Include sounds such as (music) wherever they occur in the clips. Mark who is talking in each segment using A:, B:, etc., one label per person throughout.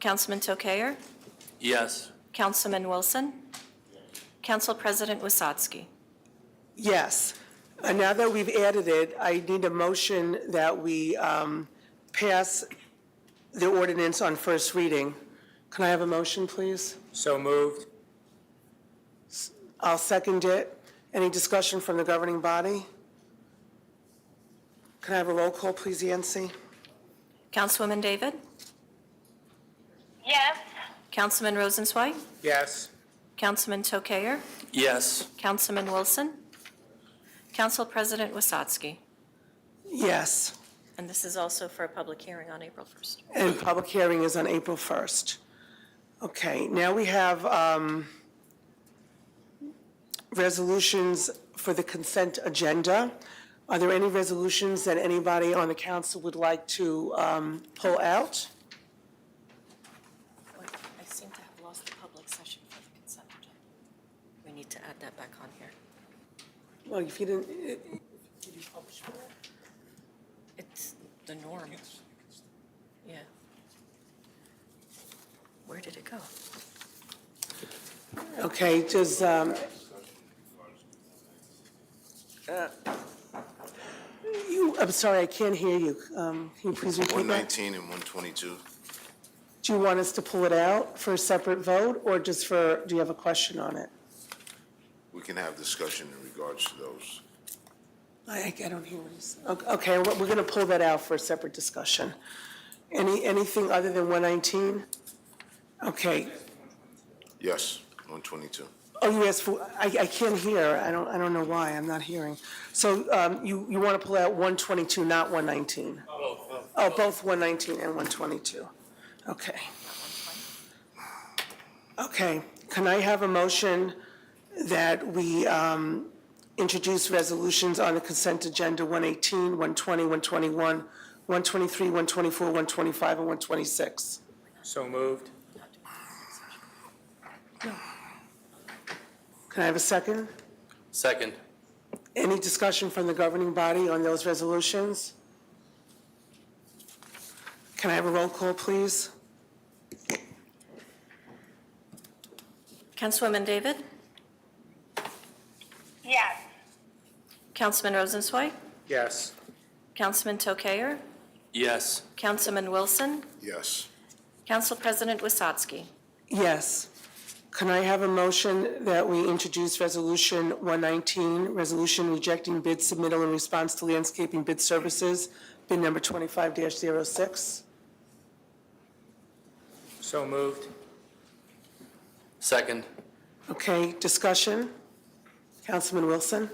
A: Councilman Tokayer,
B: Yes.
A: Councilman Wilson, Council President Wasatski.
C: Yes. Uh, Now that we've added it, I need a motion that we um, pass the ordinance on first reading. Can I have a motion, please?
B: So moved.
C: I'll second it. Any discussion from the governing body? Can I have a roll call, please, Yancy?
A: Councilwoman David,
D: yes,
A: Councilman Rosenzweig,
B: Yes.
A: Councilman Tokayer,
B: Yes.
A: Councilman Wilson, Council President Wasatski.
C: Yes.
A: And this is also for a public hearing on April 1st.
C: And public hearing is on April 1st. Okay, now we have um, resolutions for the consent agenda. Are there any resolutions that anybody on the council would like to um, pull out?
A: Wait, I seem to have lost the public session for the consent agenda. We need to add that back on here.
C: Well, if you didn't, did you publish
A: It's the norm. Yeah. Where did it go?
C: uh, Okay, does, um, uh, you, I'm sorry, I can't hear you. Um, Can you please repeat that?
E: 119 and 122.
C: Do you want us to pull it out for a separate vote, or just for, do you have a question on it?
E: We can have discussion in regards to those.
C: I, I don't hear what he's, okay, okay, we're we're gonna pull that out for a separate discussion. Any, anything other than one nineteen? Okay,
E: Yes, 122.
C: oh, you asked for, I, I can't hear, I don't, I don't know why, I'm not hearing. So, um, you, you wanna pull out one twenty-two, not one nineteen? Oh, both one nineteen and one twenty-two, okay. Okay, can I have a motion that we, um, introduce resolutions on the consent agenda 118, 120, 121, 123, 124, 125, and 126.
B: So moved.
C: Can I have a second?
B: Second.
C: Any discussion from the governing body on those resolutions? Can I have a roll call, please?
A: Councilwoman David,
D: yes,
A: Councilman Rosenzweig,
B: Yes.
A: Councilman Tokayer,
B: Yes.
A: Councilman Wilson,
E: Yes.
A: Council President Wasatski.
C: Yes. Can I have a motion that we introduce Resolution 119, Resolution Rejecting Bid Submittal in Response to Landscaping Bid Services, bid number 25-06?
B: So moved. Second.
C: Okay, discussion? Councilman Wilson?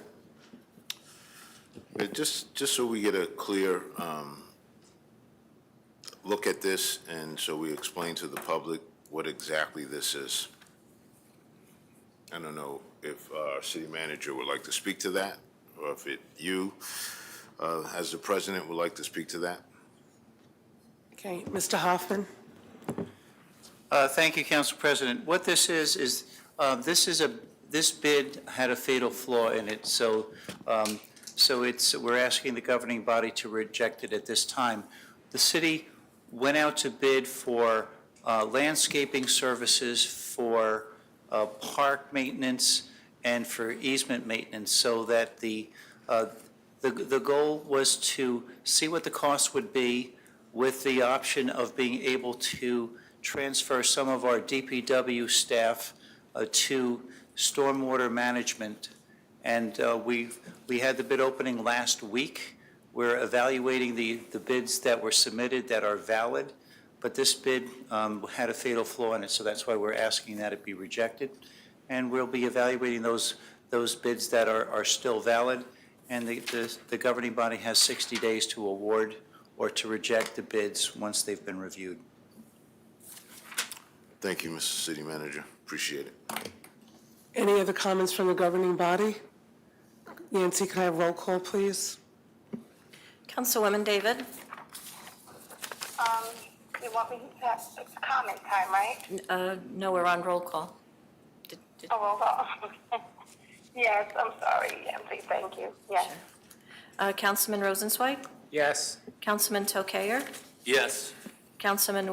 E: Yeah, Just, just so we get a clear um, look at this, and so we explain to the public what exactly this is. I don't know if uh, our city manager would like to speak to that, or if it, you, uh, as the president, would like to speak to that.
C: Okay, Mr. Hoffman?
F: Uh, Thank you, Council President. What this is, is uh, this is a, this bid had a fatal flaw in it, so, um, so it's, we're asking the governing body to reject it at this time. The city went out to bid for uh, landscaping services, for uh, park maintenance, and for easement maintenance, so that the, uh, the the goal was to see what the cost would be with the option of being able to transfer some of our DPW staff uh, to stormwater management. And uh, we, we had the bid opening last week. We're evaluating the, the bids that were submitted that are valid, but this bid um, had a fatal flaw in it, so that's why we're asking that it be rejected. And we'll be evaluating those, those bids that are, are still valid, and the, the- the governing body has 60 days to award or to reject the bids once they've been reviewed.
E: Thank you, Mr. City Manager. Appreciate it.
C: Any other comments from the governing body? Nancy, can I have roll call, please?
A: Councilwoman David,
D: um, you want me to have it's comment time, right?
A: uh, no, we're on roll call. Did- did-
D: Oh, well, well, (laughs) yes, I'm sorry, Nancy, thank you, yes.
A: uh, Councilman Rosenzweig,
B: Yes.
A: Councilman Tokayer,
B: Yes.
A: Councilman